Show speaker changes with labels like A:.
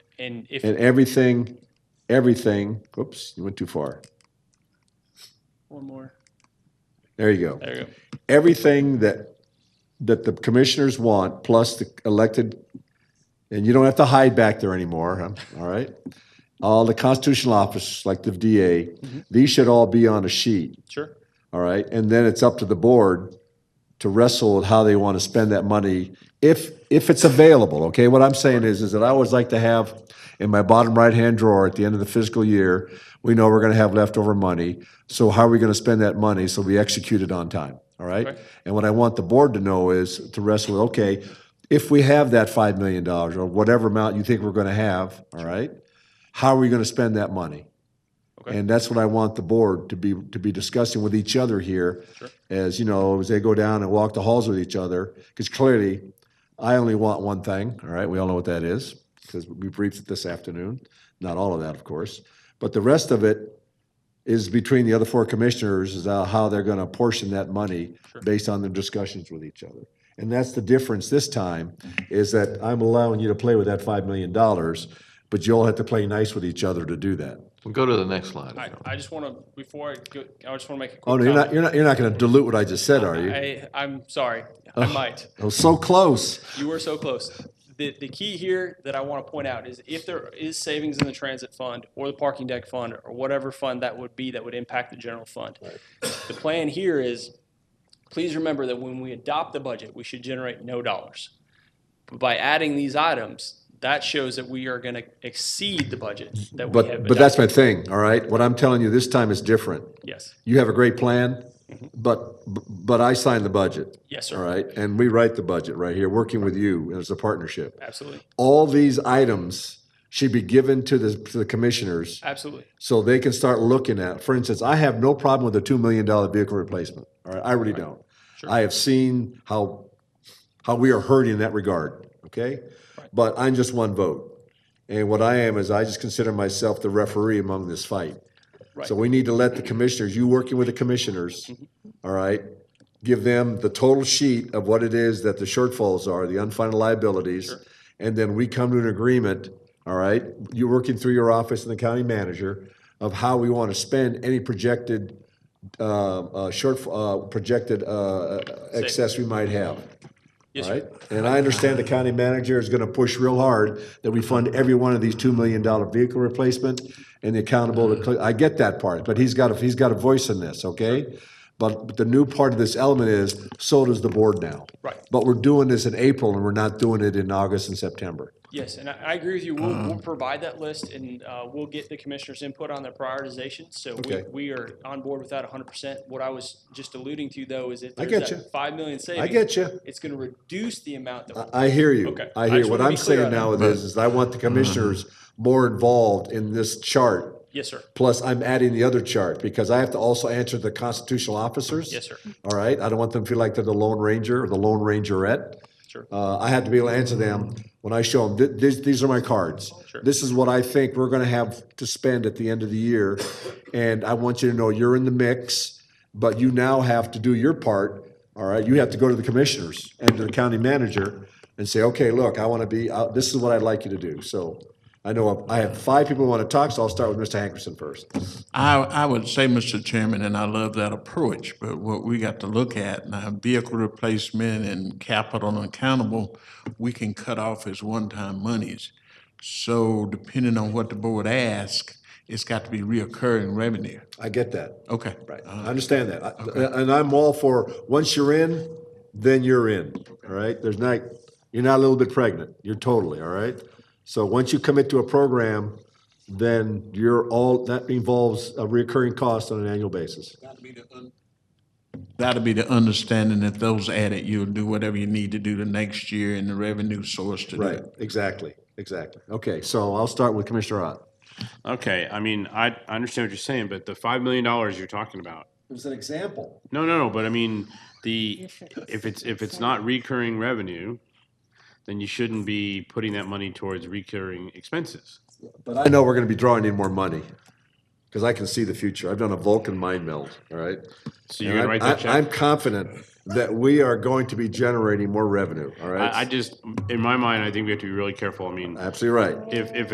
A: And if,
B: And everything, everything, whoops, you went too far.
A: one more,
B: There you go.
A: there you go.
B: Everything that, that the commissioners want, plus the elected, and you don't have to hide back there anymore, huh? all right? All the constitutional officers, like the DA, these should all be on a sheet.
A: Sure.
B: All right, and then it's up to the board to wrestle with how they want to spend that money if, if it's available, okay? What I'm saying is, is that I always like to have in my bottom right-hand drawer at the end of the fiscal year, we know we're gonna have leftover money, so how are we gonna spend that money so we execute it on time, all right?
A: Right.
B: And what I want the board to know is to wrestle with, okay, if we have that five million dollars or whatever amount you think we're gonna have, all right? How are we gonna spend that money?
A: Okay.
B: And that's what I want the board to be, to be discussing with each other here.
A: Sure.
B: As, you know, as they go down and walk the halls with each other, because clearly, I only want one thing, all right? We all know what that is, because we briefed it this afternoon. Not all of that, of course. But the rest of it is between the other four commissioners, is uh, how- how they're gonna portion that money
A: Sure.
B: based on their discussions with each other. And that's the difference this time, is that I'm allowing you to play with that five million dollars, but you all have to play nice with each other to do that.
C: We'll go to the next slide.
A: I, I just want to, before I go, I just want to make a quick
B: Oh, no, you're not,
A: comment.
B: you're not, you're not gonna dilute what I just said, are you?
A: I, I'm sorry, I might.
B: It was so close.
A: You were so close. The, the key here that I want to point out is if there is savings in the transit fund or the parking deck fund or whatever fund that would be that would impact the general fund. The plan here is, please remember that when we adopt the budget, we should generate no dollars. But By adding these items, that shows that we are going to exceed the budget that we have
B: But, but that's my thing, all right? What I'm telling you this time is different.
A: adopted. Yes,
B: You have a great plan,
A: Mm-hmm.
B: but, but I sign the budget,
A: yes,
B: all
A: sir,
B: right? And we write the budget right here, working with you as a partnership.
A: absolutely,
B: All these items should be given to the, to the commissioners
A: absolutely,
B: so they can start looking at, for instance, I have no problem with a $2 million vehicle replacement, all right? I really don't.
A: Sure.
B: I have seen how, how we are hurt in that regard, okay? But I'm just one vote. And what I am is I just consider myself the referee among this fight.
A: right.
B: So we need to let the commissioners, you working with the commissioners,
A: Mm-hmm.
B: all right? Give them the total sheet of what it is that the shortfalls are, the unfunded liabilities. And then we come to an agreement, all right? You're working through your office and the county manager of how we want to spend any projected, uh, uh, short, uh, projected, uh, excess we might have.
A: Yes,
B: All
A: sir.
B: right, and I understand the county manager is gonna push real hard that we fund every one of these two million dollar vehicle replacement and the accountable, to
A: Mm-hmm.
B: cle- I get that part, but he's got, a he's got a voice in this, okay? But but the new part of this element is, so does the board now.
A: Right.
B: But we're doing this in April and we're not doing it in August and September.
A: Yes, and I, I agree with you. We'll, we'll provide that list and, uh, we'll get the commissioners' input on their prioritization. So we,
B: Okay.
A: we are on board with that hundred percent. What I was just alluding to though is if
B: I
A: there's
B: get you.
A: that five million savings.
B: I get you,
A: It's gonna reduce the amount that,
B: I hear you.
A: Okay. I
B: I hear,
A: just
B: what
A: wanna be
B: I'm
A: clear
B: saying
A: on
B: now is, is I want the commissioners more involved in this chart
A: yes, sir.
B: Plus, I'm adding the other chart because I have to also answer the constitutional officers.
A: Yes, sir.
B: All right, I don't want them to feel like they're the Lone Ranger or the Lone Rangerette.
A: Sure.
B: Uh, I have to be able to answer them when I show them, "Th- these, these are my cards.
A: Sure.
B: This is what I think we're gonna have to spend at the end of the year. And I want you to know you're in the mix, but you now have to do your part, all right? You have to go to the commissioners and to the county manager and say, okay, look, I wanna be, uh, this is what I'd like you to do. So I know I have five people who wanna talk, so I'll start with Mr. Hankerson first.
D: I, I would say, Mr. Chairman, and I love that approach, but what we got to look at now, vehicle replacement and capital and accountable, we can cut off as one-time monies. So depending on what the board asks, it's got to be reoccurring revenue.
B: I get that.
D: Okay.
B: Right. I understand that. I- And I'm all for, once you're in, then you're in, all right? There's not, you're not a little bit pregnant. You're totally, all right? So once you commit to a program, then you're all, that involves a recurring cost on an annual basis.
D: That'll be the understanding that those added, you'll do whatever you need to do the next year and the revenue source to do.
B: Right,
D: it.
B: exactly, exactly. Okay, so I'll start with Commissioner Ott.
E: Okay, I mean, I, I understand what you're saying, but the five million dollars you're talking about.
B: It was an example.
E: No, no, no, but I mean, the, if it's, if it's not recurring revenue, then you shouldn't be putting that money towards recurring expenses.
B: But I know we're gonna be drawing in more money, because I can see the future. I've done a Vulcan mind meld, all right?
E: So you're
B: And
E: gonna
B: I'm-
E: write that
B: I- I'm
E: check?
B: confident that we are going to be generating more revenue, all
E: I, I
B: right?
E: just, in my mind, I think we have to be really careful. I mean,
B: Absolutely right.
E: if, if